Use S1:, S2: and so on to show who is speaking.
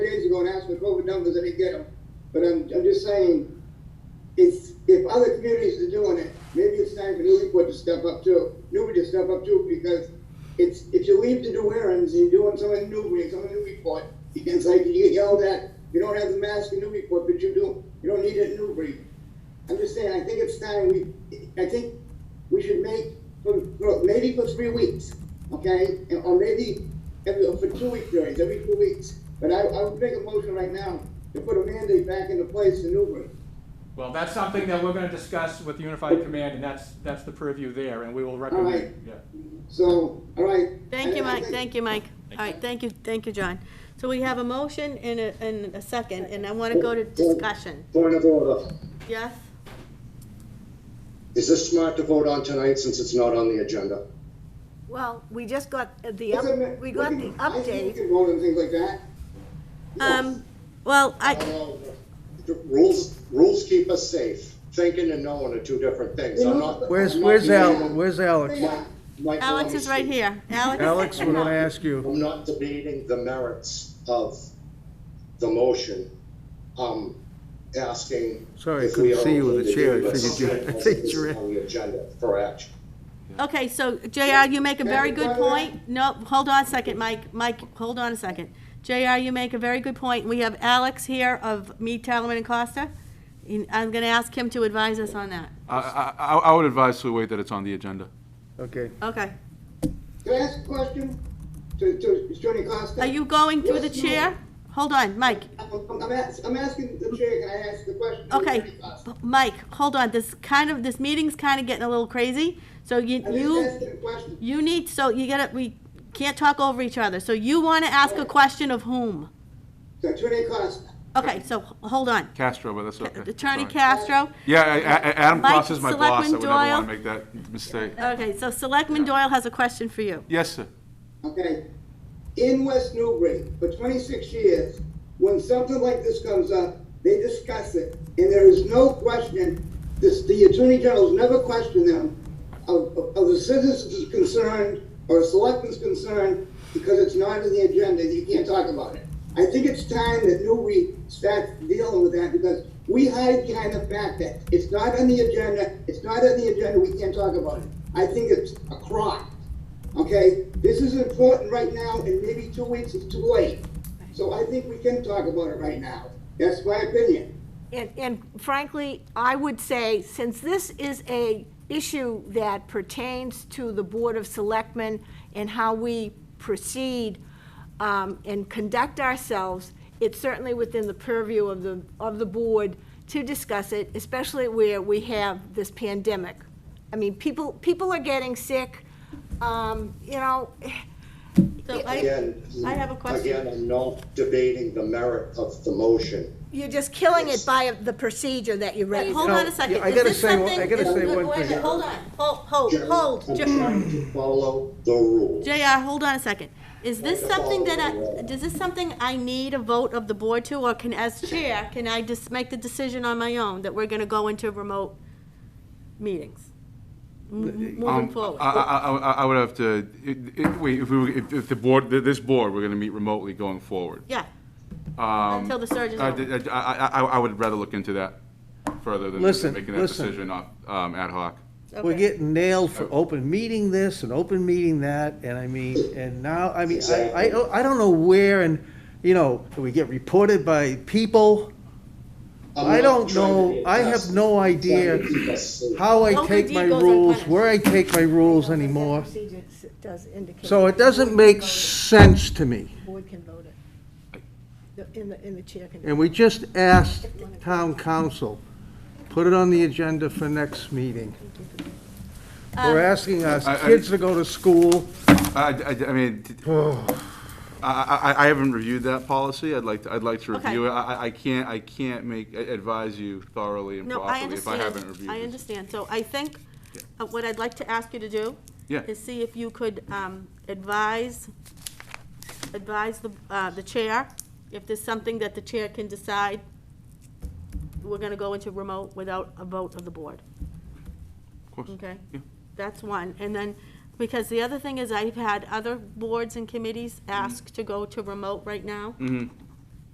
S1: go and ask for COVID numbers and they get them. But I'm, I'm just saying, it's, if other communities are doing it, maybe it's time for Newburyport to step up too. Newbury to step up too, because it's, if you leave to do errands, you're doing something in Newbury, and something in Newburyport. It's like you get yelled at, you don't have the mask in Newburyport, but you do, you don't need it in Newbury. I'm just saying, I think it's time we, I think we should make, for, for- maybe for three weeks, okay? And- Or maybe every, for two week periods, every two weeks. But I, I would make a motion right now to put a mandate back into place in Newbury.
S2: Well, that's something that we're gonna discuss with Unified Command, and that's, that's the purview there, and we will
S1: right.
S2: recommend, yeah.
S1: So, all right.
S3: Thank you,
S1: I- I
S3: Mike,
S1: think-
S3: thank you, Mike. All right, thank you, thank you, John. So we have a motion and a, and a second, and I want to go to discussion.
S4: Point of order.
S3: Yes?
S4: Is this smart to vote on tonight since it's not on the agenda?
S5: Well, we just got the,
S1: It's a ma-
S5: up- we got the
S1: I think we
S5: update.
S1: can vote on things like that.
S3: Um, well, I,
S4: The Rules, rules keep us safe. Thinking and knowing are two different things. I'm not.
S6: Where's,
S4: I'm not
S6: where's
S4: being-
S6: Al, where's Alex?
S4: Mike- Mike,
S3: Alex is right here. Alex?
S6: Alex, we're gonna ask you.
S4: I'm not debating the merits of the motion. I'm asking.
S6: Sorry, I
S4: if we
S6: couldn't see you with
S4: are
S6: the chair. I
S4: okay to do
S6: figured you-
S4: this.
S6: I figured you were-
S4: On the agenda for action.
S3: Okay, so JR, you make a very good point. No, hold on a second, Mike, Mike, hold on a second. JR, you make a very good point. We have Alex here of Mead, Talaman and Costa. And I'm going to ask him to advise us on that.
S7: I, I, I I would advise to wait that it's on the agenda.
S6: Okay.
S3: Okay.
S1: Can I ask a question to, to Attorney Costa?
S3: Are you going through the chair? Hold on, Mike.
S1: I'm, I'm ask- I'm asking the chair, can I ask the question? to
S3: Okay,
S1: Attorney Costa?
S3: Mike, hold on, this kind of, this meeting's kind of getting a little crazy, so you,
S1: I'm just
S3: you,
S1: asking a question.
S3: you need, so you gotta, we can't talk over each other, so you wanna ask a question of whom?
S1: To Attorney Costa.
S3: Okay, so, h- hold on,
S7: Castro, but that's okay.
S3: Attorney
S7: Sorry.
S3: Castro,
S7: Yeah, I- I- I- Adam
S3: Mike,
S7: Cross is my boss. I
S3: Selectman
S7: would never
S3: Doyle.
S7: want to make that mistake.
S3: okay, so Selectman Doyle has a question for you.
S7: Yes, sir.
S1: okay, in West Newbury for twenty-six years, when something like this comes up, they discuss it, and there is no question, this, the Attorney General's never questioned them of, of of the citizens' concern or selectmen's concern, because it's not in the agenda, you can't talk about it. I think it's time that Newbury starts dealing with that, because we hide behind the fact that it's not on the agenda, it's not on the agenda, we can't talk about it. I think it's a crock. Okay, this is important right now, and maybe two weeks is too late. So I think we can talk about it right now. That's my opinion.
S5: And, and frankly, I would say, since this is a issue that pertains to the Board of Selectmen and how we proceed um, and conduct ourselves, it's certainly within the purview of the, of the board to discuss it, especially where we have this pandemic. I mean, people, people are getting sick, um, you know,
S3: So I,
S4: Again.
S3: I have a question.
S4: Again, I'm not debating the merit of the motion.
S5: You're just killing it by the procedure that you
S3: wait,
S5: raised.
S3: hold
S6: No,
S3: on a second,
S6: yeah, I
S3: is
S6: gotta
S3: this
S6: say one-
S3: something?
S6: I gotta
S3: is-
S6: say one
S3: wait a
S6: thing.
S3: minute, Hold on, hold, hold, hold,
S4: I'm trying
S3: Ju-
S4: to follow the rules.
S3: JR, hold on a second. Is this
S4: Wait, hold
S3: something that
S4: on.
S3: I, does this something I need a vote of the board to, or can, as chair, can I just make the decision on my own that we're gonna go into remote meetings? M- Moving
S7: Um, I, I,
S3: forward.
S7: I- I- I would have to, it- it- wait, if we, were- if if the board, this board, we're going to meet remotely going forward.
S3: Yeah,
S7: Um,
S3: until the surge is
S7: I,
S3: over.
S7: I, I- I would rather look into that further than
S6: Listen,
S7: making that
S6: listen.
S7: decision up, um, ad hoc.
S6: We're
S3: Okay.
S6: getting nailed for open meeting this and open meeting that, and I mean, and now, I mean, I, I, I don't know where and, you know, do we get reported by people?
S4: I'm not
S6: I don't
S4: trying to
S6: know,
S4: be
S6: I
S4: aggressive.
S6: have no
S4: I'm trying to
S6: idea
S4: keep us safe.
S6: how I
S3: Local
S6: take
S3: D
S6: my
S3: goes
S6: rules,
S3: unpunished.
S6: where I take my rules anymore.
S5: Procedure s- does indicate
S6: So it doesn't make sense to me.
S5: the board can vote it. The- In the, in the chair can.
S6: And we just asked town council, put it on the agenda for next meeting. We're asking us,
S7: I- I-
S6: kids to go to school,
S7: I, I, I mean, t- I, I, I haven't reviewed that policy. I'd like, to I'd like to
S3: Okay.
S7: review it. I, I- I can't, I can't make, advise you thoroughly and
S3: No, I
S7: properly if I
S3: understand.
S7: haven't reviewed it.
S3: I understand. So I think uh, what I'd like to ask you to do
S7: Yeah.
S3: is see if you could um, advise, advise the, uh, the chair, if there's something that the chair can decide, we're gonna go into remote without a vote of the board.
S7: Of course.
S3: Okay.
S7: Yeah.
S3: That's one. And then, because
S7: Mm-hmm.
S3: the other thing is I've had other boards and committees ask to go to remote right now.